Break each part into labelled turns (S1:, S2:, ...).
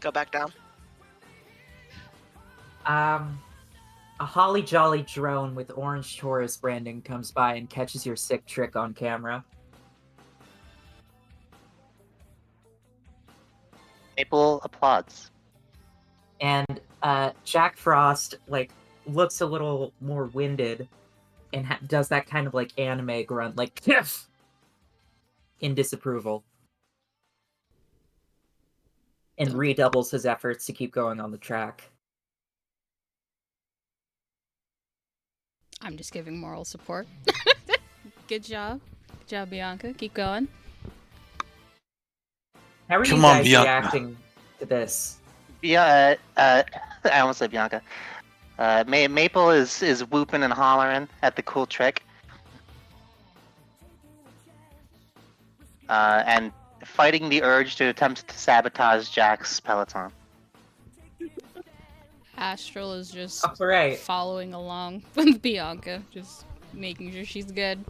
S1: Go back down.
S2: Um, a holly jolly drone with orange Taurus branding comes by and catches your sick trick on camera.
S3: Maple applauds.
S2: And uh, Jack Frost like looks a little more winded, and ha- does that kind of like anime grunt, like "Kiff!" in disapproval, and redoubles his efforts to keep going on the track.
S4: I'm just giving moral support. Good job. Good job, Bianca. Keep going.
S2: How are
S5: Come
S2: you
S5: on,
S2: guys
S5: Bianca.
S2: reacting to this?
S3: Yeah, uh, uh, I almost said Bianca. Uh, Ma- Maple is is whooping and hollering at the cool trick. Uh, and fighting the urge to attempt to sabotage Jack's peloton.
S4: Astral is just
S2: All right.
S4: following along with Bianca, just making sure she's good,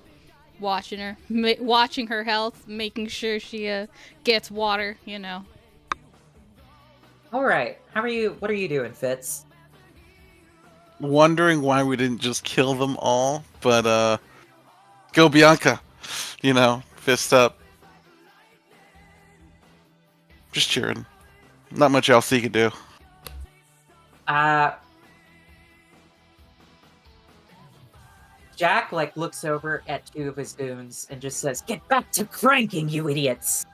S4: watching her, ma- watching her health, making sure she uh, gets water. You know,
S2: All right. How are you? What are you doing, Fitz?
S5: Wondering why we didn't just kill them all, but uh, go Bianca. You know, fist up. Just cheering. Not much else he could do.
S2: Uh, Jack like looks over at two of his goons and just says, "Get back to cranking, you idiots!"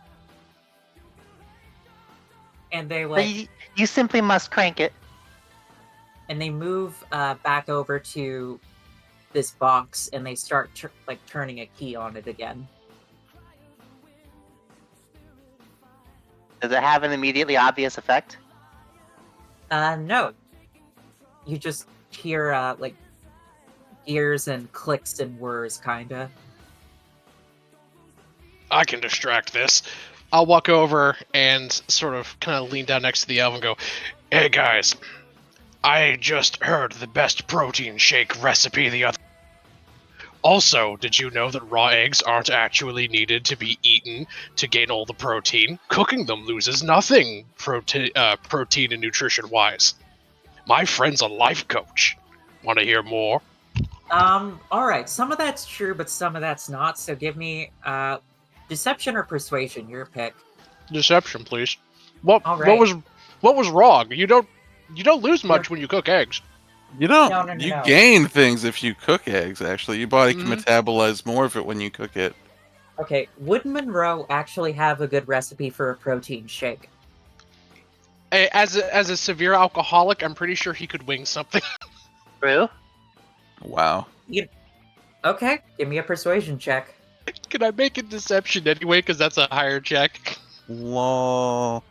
S2: And they
S3: But
S2: like,
S3: you, you simply must crank it.
S2: and they move uh, back over to this box and they start tur like turning a key on it again.
S3: Does it have an immediately obvious effect?
S2: Uh, no. You just hear uh, like gears and clicks and whirs, kinda.
S6: I can distract this. I'll walk over and sort of kind of lean down next to the elf and go, Hey guys, I just heard the best protein shake recipe the other. Also, did you know that raw eggs aren't actually needed to be eaten to gain all the protein? Cooking them loses nothing prote- uh, protein and nutrition wise. My friend's a life coach. Want to hear more?
S2: Um, all right. Some of that's true, but some of that's not. So give me uh, deception or persuasion. Your pick.
S6: Deception, please. What,
S2: All
S6: what
S2: right.
S6: was what was wrong? You don't you don't lose much when you cook eggs.
S5: You don't.
S2: No, no, no,
S5: you
S2: no.
S5: gain things if you cook eggs. Actually, your body can
S6: Mhm.
S5: metabolize more of it when you cook it.
S2: Okay. Would Monroe actually have a good recipe for a protein shake?
S6: A- as a, as a severe alcoholic, I'm pretty sure he could wing something.
S3: True.
S5: Wow.
S2: Okay. Give me a persuasion check.
S6: Can I make a deception anyway? Because that's a higher check.
S5: Lol.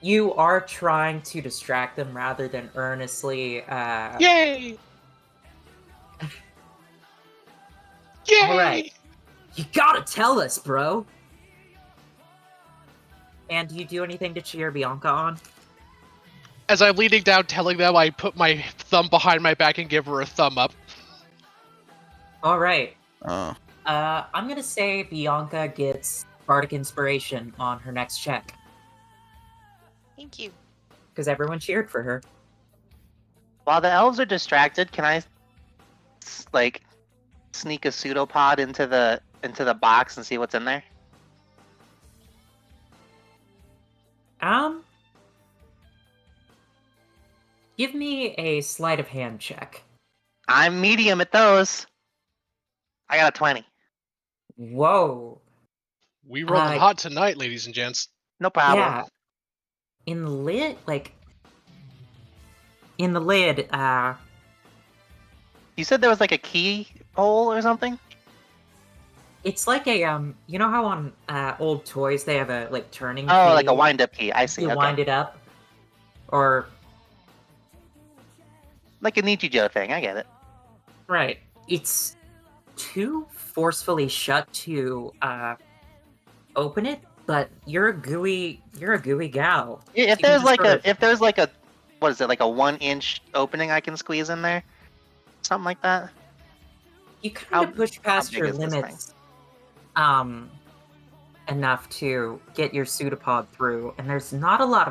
S2: You are trying to distract them rather than earnestly. Uh,
S6: Yay! Yay!
S2: All right. You gotta tell us, bro. And do you do anything to cheer Bianca on?
S6: As I'm leaning down, telling them, I put my thumb behind my back and give her a thumb up.
S2: All right.
S5: Oh.
S2: Uh, I'm gonna say Bianca gets bardic inspiration on her next check
S1: Thank you.
S2: because everyone cheered for her.
S3: While the elves are distracted, can I s- like sneak a pseudopod into the into the box and see what's in there?
S2: Um, give me a sleight of hand check.
S3: I'm medium at those. I got a 20.
S2: Whoa.
S6: We rolling
S2: Uh,
S6: hot tonight, ladies and gents.
S3: No problem.
S2: Yeah. In lid, like in the lid. Uh,
S3: You said there was like a key hole or something?
S2: it's like a um. You know how on uh old toys they have a like turning.
S3: Oh, like a
S2: key?
S3: wind up key. I see.
S2: You
S3: Okay.
S2: wind it up, or
S3: Like a Nichijou thing. I get it.
S2: Right. It's too forcefully shut to uh open it, but you're a gooey you're a gooey gal.
S3: I- If
S2: you can
S3: there's
S2: just
S3: like
S2: sort
S3: a
S2: of-
S3: if there's like a what is it like a one inch opening I can squeeze in there, something like that.
S2: You kind
S3: How-
S2: of push past
S3: big
S2: your
S3: is this thing?
S2: limits um enough to get your pseudopod through, and there's not a lot of